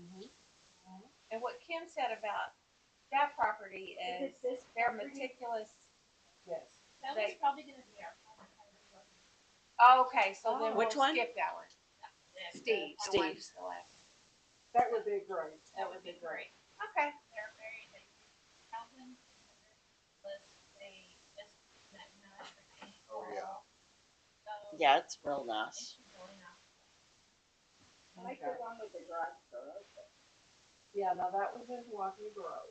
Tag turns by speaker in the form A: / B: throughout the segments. A: Mm-hmm. said about that property is
B: Is it this
A: they're
B: property?
A: meticulous.
C: Yes.
B: That
A: They-
B: was probably gonna be our.
A: Okay, so
C: Oh.
A: then we'll
D: Which one?
A: skip that one. Steve. the one
D: Steve's.
A: to the left.
C: That would be great.
B: That would be great.
A: Okay.
B: They're very, they, Calvin was a, just that nice.
E: Oh, yeah.
B: So,
D: Yeah, it's real
B: I think
D: nice.
B: she's going up.
C: I like the one with the garage door open. Yeah, now that was in Walkie Grove.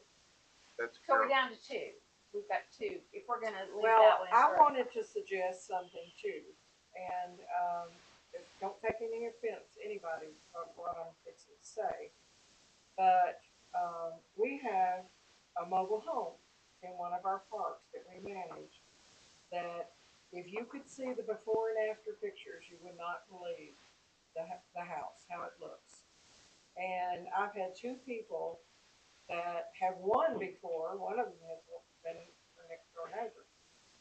E: That's
A: So we're
E: Carol.
A: down to two. We've got two. If we're gonna leave that
C: Well,
A: one.
C: I
A: for-
C: wanted to suggest something too, and, um, don't take any offense, anybody, of what I'm fixing to say. But, um, we have a mobile home in one of our parks that we manage. That if you could see the before and after pictures, you would not believe the, h- the house, how it looks. And I've had two people that have won before, one of them has been our next door neighbor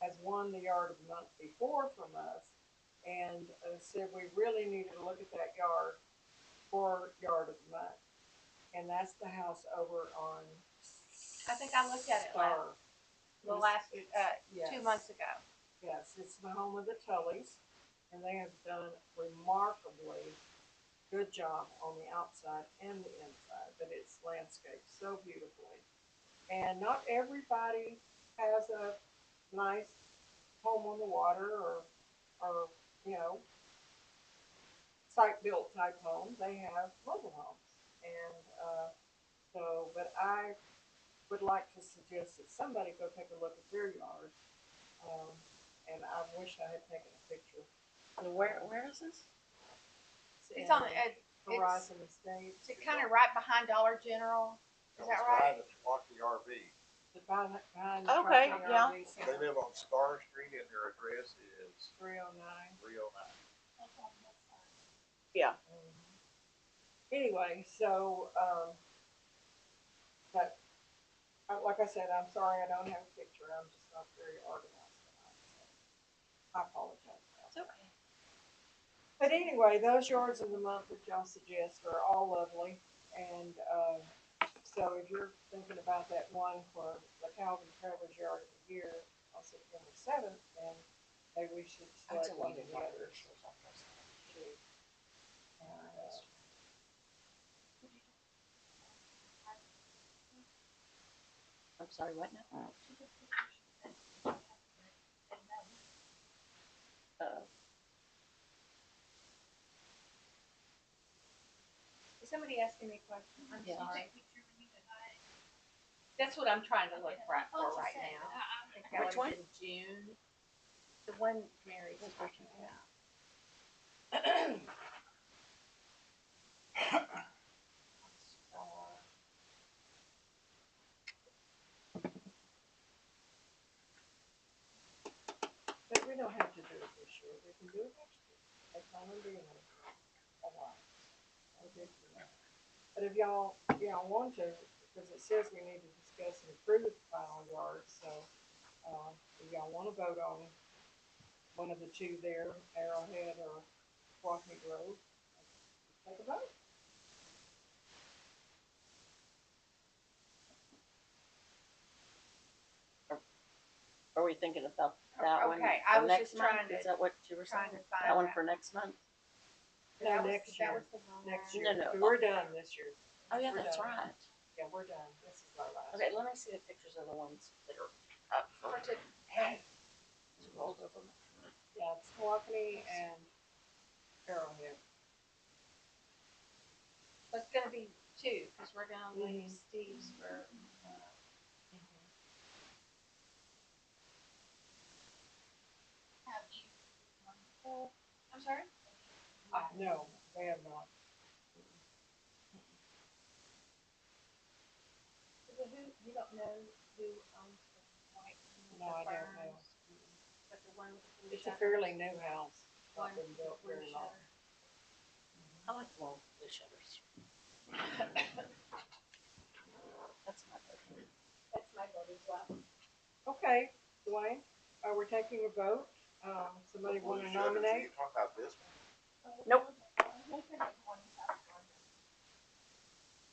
C: has won the yard of the month before from us and uh, said we really needed to look at that yard for yard of the month. And that's the house over on.
A: I think I looked at it last,
C: Star.
A: the last,
C: It's-
A: uh, two
C: yes.
A: months ago.
C: Yes, it's the home of the Tullys, and they have done remarkably good job on the outside and the inside, but it's landscaped so beautifully. And not everybody has a nice home on the water or, or, you know, site-built type home, they have mobile homes. And, uh, so, but I would like to suggest that somebody go take a look at their yard. Um, and I wish I had taken a picture.
D: Where, where is this?
A: It's on,
C: And
A: the- uh, it's,
C: Horizon Estates.
A: it's kind of right behind Dollar General. Is that right?
E: It's Milwaukee RV.
C: The behind, behind.
D: Okay, yeah.
E: They live on Star Street and their address is
C: Three oh nine.
E: three oh nine.
B: That's on this side.
C: Anyway, so, um, but, uh, like I said, I'm sorry I don't have a picture. I'm just not very organized tonight. so I apologize. about that.
D: okay.
C: But anyway, those yards of the month that y'all suggest are all lovely. And, um, so if you're thinking about that one for the Calvin Travers Yard of the Year on September seventh, then maybe we should select one of the others. too. And, uh,
D: I'm sorry, what now?
B: And that was
D: Uh,
A: Is somebody asking me a question? I'm
D: Yeah.
A: sorry.
B: a picture when you and I.
A: That's what I'm trying to look right
B: Oh,
A: for
B: it's the
A: right
B: same,
A: now.
B: but I-
A: I
B: I'm-
A: think that
D: Which
A: was in June. The one Mary's
D: Which
A: talking
D: one?
A: about.
C: But we don't have to do it this year, we can do it next year, that's not gonna be in a a while. Okay. But if y'all, y'all want to, because it says we need to discuss and approve the final yard, so, uh, if y'all wanna vote on one of the two there, Arrowhead or Walking Grove, take a vote.
D: Are we thinking about that one?
A: Okay, I
D: for
A: was
D: next
A: just trying
D: month?
A: to-
D: Is that what you were
A: Trying
D: saying?
A: to find
D: That one
A: out.
D: for next month?
C: No,
A: That was-
C: next
A: that
C: year.
A: was the one
C: Next
A: where-
C: year,
D: no,
C: we're done this year.
D: Oh, yeah,
C: We're
D: that's
C: done.
D: right.
C: Yeah, we're done, this is our last.
D: Okay, let me see the pictures of the ones that are up for to. Scrolled over.
C: Yeah, it's Milwaukee and Arrowhead.
A: But It's gonna be two, cause we're gonna leave
C: Mhm.
A: Steve's for, uh,
B: Have you, um,
A: I'm sorry?
C: No, they have not.
A: Is it who, you don't know who owns the white? one with
C: No,
A: the
C: I don't know.
A: ferns, But the one with the blue
C: It's a
A: shutter-
C: fairly new house.
A: one
C: Not
A: with
C: been
A: the
C: built
A: blue
C: very long.
A: shutter.
D: I like the long blue shutters. That's my favorite.
A: That's my vote as well.
C: Okay, Dwayne, uh, we're taking a vote. Um, somebody
E: Blue
C: wanna
E: shutters, are
C: nominate?
E: you Talking about this one?
D: Nope.
B: Look at that one.